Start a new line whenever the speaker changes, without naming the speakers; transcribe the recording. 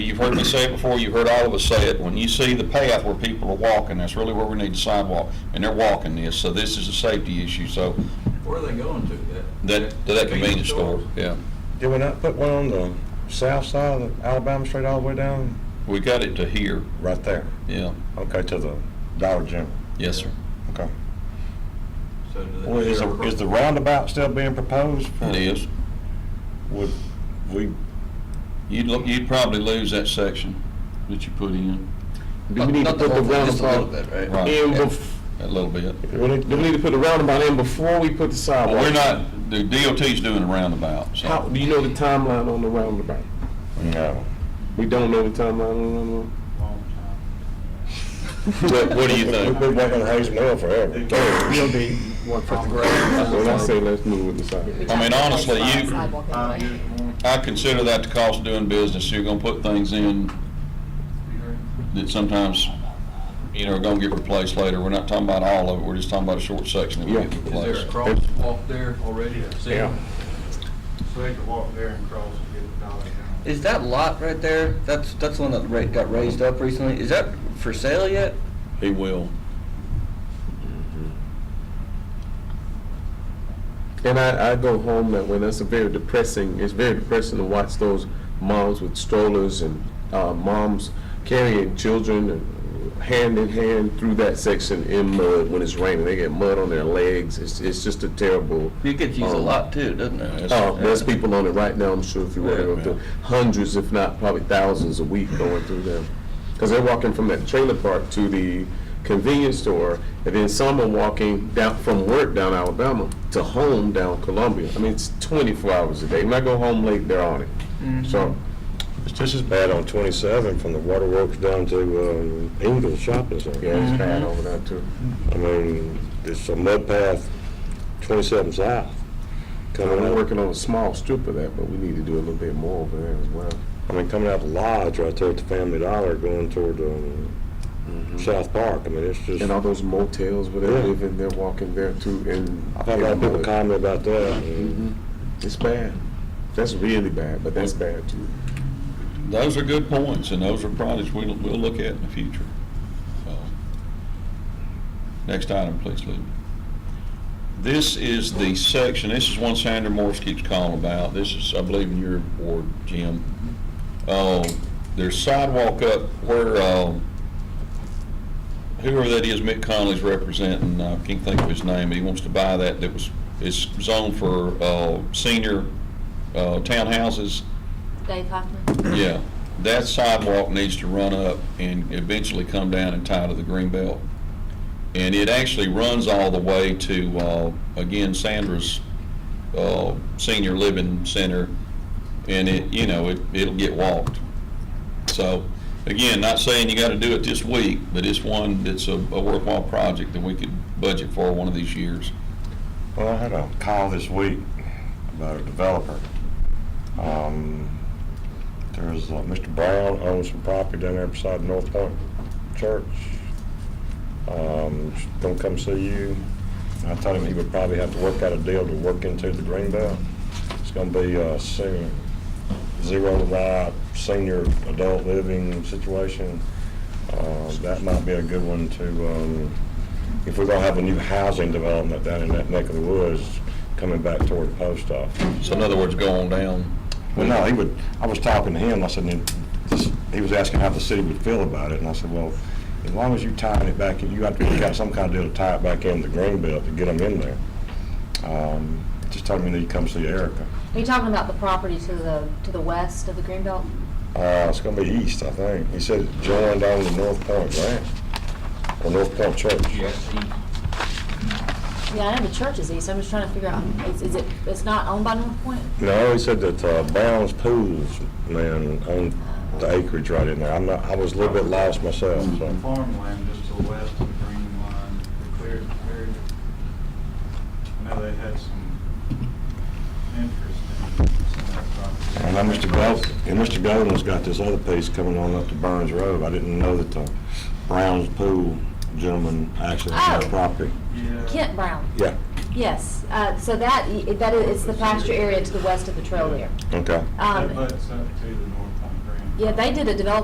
you've heard me say it before, you've heard all of us say it, when you see the path where people are walking, that's really where we need the sidewalk, and they're walking this, so this is a safety issue, so
Where are they going to, that?
that, to that convenience store, yeah.
Did we not put one on the south side of Alabama Street all the way down?
We got it to here,
Right there.
yeah,
Okay, to the Dollar General.
yes, sir.
Okay.
So do they-
Well, is, the- is the roundabout still being proposed? for-
It is.
Would we,
You'd, look- you'd probably lose that section that you put in,
Do we need to
Not the
put the
whole thing, just a little
roundabout
bit, right?
Right.
in
yeah,
bef,
a little bit.
we need- do we need to put the roundabout in before we put the
Well,
sidewalk?
we're not, the DOT's doing a roundabout, so.
How, do you know the timeline on the roundabout?
no.
We don't know the timeline on
What, what do you
We've
think?
been waiting on Hayes Mill forever.
the roundabout.
We'll be one for the
When I
grade.
say let's move with the sidewalk.
I mean, honestly, you-
Sidewalk
Five
anyway.
years more.
I consider that the cost of doing business, you're gonna put things in that sometimes, you know, are gonna get replaced later. We're not talking about all of it, we're just talking about a short section that we get
Is there
Yeah.
a
replaced.
crosswalk there already? See?
Yeah.
So they could walk there and cross and get the dollar down.
Is that lot right there, that's, that's the one that ra- got raised up recently, is that for sale yet?
He will.
And I, I go home that way. That's a very depressing. It's very depressing to watch those moms with strollers and uh, moms carrying children and hand in hand through that section in mud when it's raining. They get mud on their legs. It's, it's just a terrible.
It gets used a
Um,
lot too, doesn't it?
Oh, there's people on it right now. I'm sure if you were to go through hundreds, if not probably thousands, a week going through them because they're walking from that trailer park to the convenience store, and then some are walking down from work down Alabama to home down Columbia. I mean, it's 24 hours a day. When I go home late, they're on it. So
It's just as bad on 27 from the waterworks down to um, Ingle Shopping Center.
yeah, it's bad over there too.
I mean, it's a mud path, 27 south, coming
We're
out,
working on a small strip of that, but we need to do a little bit more over there as well.
I mean, coming out of Lodge right there at the Family Dollar going toward um, South Park. I mean, it's just,
Mm-hmm. And all
I've
those motels where they
Yeah.
live and they're walking there too. And
had a lot of people
and, uh,
comment about that. and-
Mhm. It's bad. That's really bad, but that's bad too.
Those are good points, and those are projects we'll, we'll look at in the future. So, Next item, please, Lee. This is the section, this is one Sandra Morse keeps calling about. This is, I believe, in your ward, Jim. Uh, There's sidewalk up where, uh, whoever that is Mick Conley's representing, I can't think of his name, he wants to buy that, that was, it's zoned for uh, senior uh, townhouses.
Dave Hoffman.
Yeah, that sidewalk needs to run up and eventually come down and tie to the green belt. And it actually runs all the way to, uh, again, Sandra's, uh, senior living center. And it, you know, it, it'll get walked. So, again, not saying you gotta do it this week, but it's one that's a a worthwhile project that we could budget for one of these years.
Well, I had a call this week about a developer. Um, There's, uh, Mr. Brown owns some property down there beside North Point Church. Um, he's Gonna come see you. I told him he would probably have to work out a deal to work into the green belt. It's gonna be a senior, zero ride, senior adult living situation. Uh, That might be a good one to, um, if we're gonna have a new housing development down in that neck of the woods, coming back toward the post office.
So in other words, go on down.
Well, no, he would, I was talking to him, and I said, "Then this- he was asking how the city would feel about it, and I said, well, as long as you tying it back, in, you have to work out some kind of deal to tie it back in the green belt to get them in there. Um, Just told me that you come see Erica.
Are you talking about the property to the, to the west of the Greenbelt?
Uh, it's gonna be east, I think. He said it joined on to North Point Ranch, or North Point Church.
Yes, he-
Yeah, I know the church is east, I'm just trying to figure out, is, is it, it's not owned by North Point?
No, he said that uh, Brown's Pools, man, owned the acreage right in there. I'm not, I was a little bit lost myself, so.
Farmland just to the west of the green line, the cleared area. I know they had some interest in some of that property.
And now Mr. Gold, and Mr. Golden's got this other piece coming on up to Burns Road. I didn't know that the Brown's Pool gentleman actually owned
Oh.
the property.
Yeah.
Kent Brown,
Yeah,
yes, uh, so that, i- that is, it's the pasture area to the west of the trail there.
okay.
Um,
That butts up to the north on green.
Yeah, they did a development